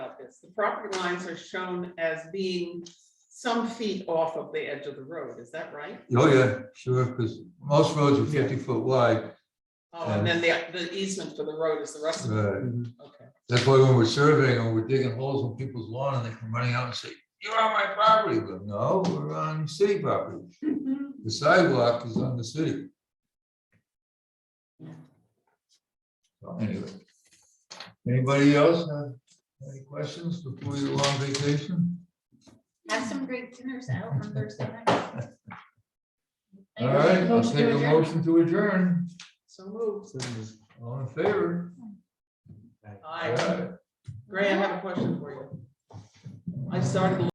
Buckets. The property lines are shown as being some feet off of the edge of the road, is that right? Oh, yeah, sure, because most roads are fifty foot wide. Oh, and then the, the easement for the road is the rest of it, Right. okay. uh, That's why when we're surveying and we're digging holes in people's lawn and they come running out and say, you're on my property. But no, we're on city property. The sidewalk is on the city. So anyway. Anybody else have any questions before you go on vacation? Have some great dinners out on Thursday night. All right, I'll take a Motion motion to adjourn. So moved. All in favor? I, Gray, I have a question for you. I started